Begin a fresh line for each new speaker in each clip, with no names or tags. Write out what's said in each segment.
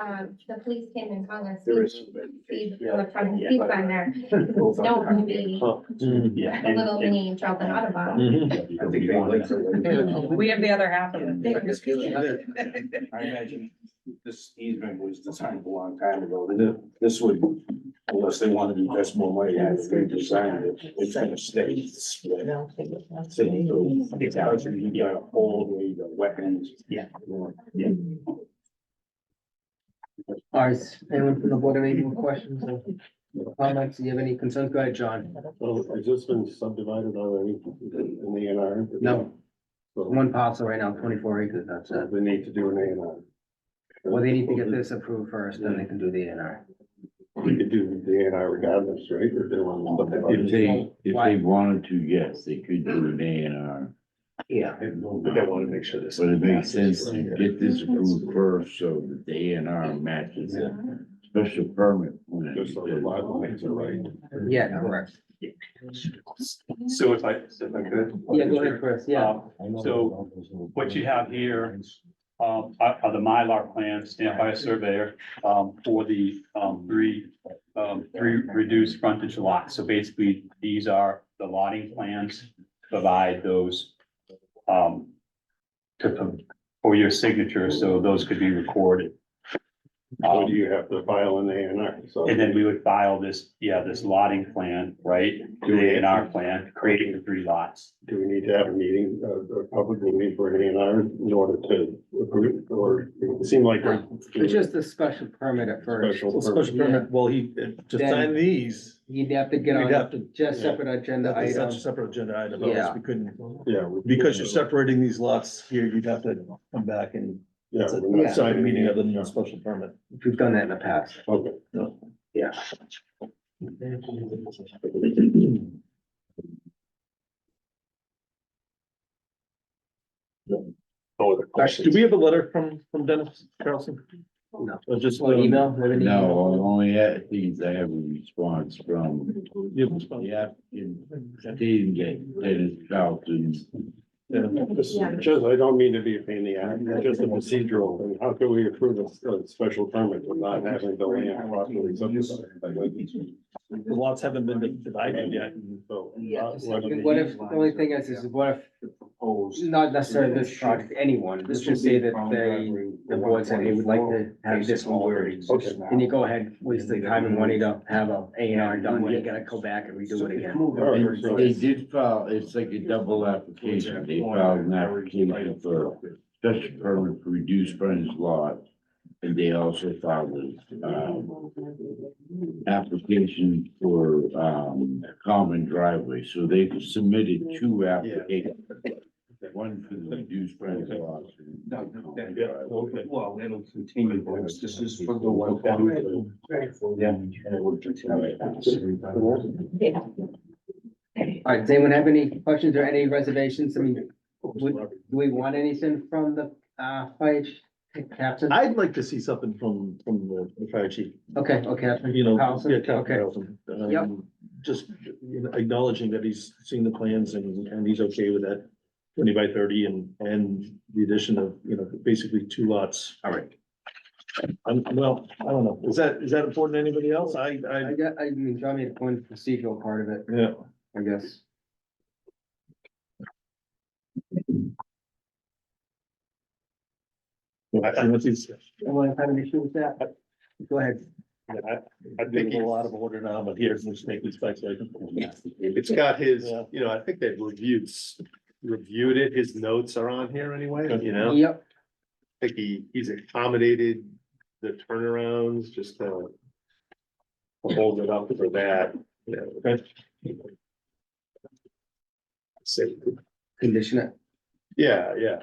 um, the police came and called us.
There is.
See the front seats on there,
No,
don't be
Mm,
Yeah.
a little mini Charlton Audubon.
Mm-hmm.
I think they like to-
We have the other half of
I just feel like
it.
that- I imagine this easement was designed a long time ago, Th- this would, unless they wanted to invest more money, had they designed it, it's gonna stay split. So, It's out, you got a whole way to wetlands.
Yeah.
Yeah.
All right, anyone from the board have any more questions or comments? Do you have any concerns? Go ahead, John.
Well, has this been subdivided already in the A and R?
No,
So
one parcel right now, twenty-four acres, that's it.
they need to do an A and R.
Well, they need to get this approved first, then they can do the A and R.
We could do the A and R regardless, right? Or they want to
If
subdivide it.
they, if they wanted to, yes, they could do an A and R,
Yeah.
But I want to make sure this.
but it makes sense to get this approved first so that the A and R matches the
Mm-hmm.
special permit. when it
Just so the lot lines are right.
Yeah, correct.
So if I, if I could.
Yeah, go ahead, Chris, yeah.
Um, So what you have here um, are are the Mylar plans stamped by a surveyor um, for the um, three, um, three reduced frontage lots. So basically, these are the lotting plans, to provide those um, to, for your signature, so those could be recorded.
So
Um,
do you have to file an A and R? So
and then we would file this, yeah, this lotting plan, right? Do A and R plan, creating the three lots.
do we need to have a meeting, a, a public meeting for an A and R in order to approve it? or it seemed like. we're-
It's just a special permit at first.
Special
Special
permit.
permit, well, he, uh, to
Then-
sign these,
You'd have to get
You'd have
on just separate agenda
that's such a
items.
separate agenda item, otherwise
um, Yeah.
we couldn't,
Yeah. we-
because you're separating these lots here, you'd have to come back and.
Yeah.
It's a
we're not
side
signing
meeting
it.
other than a special permit.
We've done that in the past.
Okay.
Yeah.
No other
Do we have a letter from, from Dennis Carlson?
No.
Or just?
Or
um,
email, have an email?
No, only at these, I have a response from
yeah, just-
the applicant, stating that Dennis Charlton
yeah.
This is just, I don't mean to be a pain in the ass, it's just a procedural, and how can we approve a, a special permit for not having the land properly subdivided?
The lots haven't been divided yet.
So,
Yeah,
uh, what do we-
what if, the only thing is, is what if
Proposed.
Not necessarily this project, anyone, let's just say that they, the board said they would like to have this one worded.
Okay.
And you go ahead, waste the time and money to have a A and R done, when you gotta go back and redo it again.
Alright, so-
They did file, it's like a double application, they filed an application for special permit for reduced frontage lot. And they also filed a, um, application for, um, common driveway, so they submitted two applications. One for the reduced frontage lot.
No, no, that-
Yeah, okay.
Well, it'll continue, but it's- this is for the one. Yeah.
All right, does anyone have any questions or any reservations? I mean, would- do we want anything from the, uh, fire ch- captain?
I'd like to see something from, from the- the fire chief.
Okay, okay,
you know.
Carlson?
yeah, Captain
Okay.
Carlson, um,
Yep.
Just you know, acknowledging that he's seen the plans and, and he's okay with that twenty by thirty and, and the addition of, you know, basically two lots.
all right.
Um, well, I don't know, is that, is that important to anybody else? I, I,
I got, I mean, John made a point of procedural part of it,
yeah.
I guess.
I, I
Anyone have an issue with that? Go ahead.
think a lot of order now, but here's the snake inspection.
It's got his,
Yeah.
you know, I think they've reviewed, s- reviewed it, his notes are on here anyway,
Good.
you know,
Yep,
I think he, he's accommodated the turnarounds, just to hold it up for that, you know. Say,
condition it.
yeah, yeah.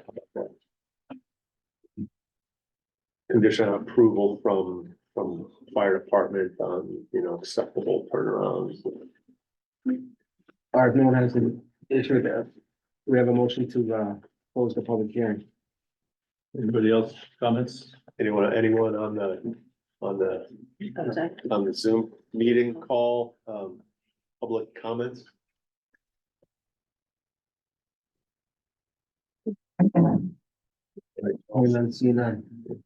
Condition on approval from, from fire department on, you know, acceptable turnarounds.
Or if no one has an issue with that, we have a motion to, uh, close the public hearing.
Anybody else comments?
Anyone, anyone on the, on the, on the Zoom meeting call, um, public comments?
Only then see none.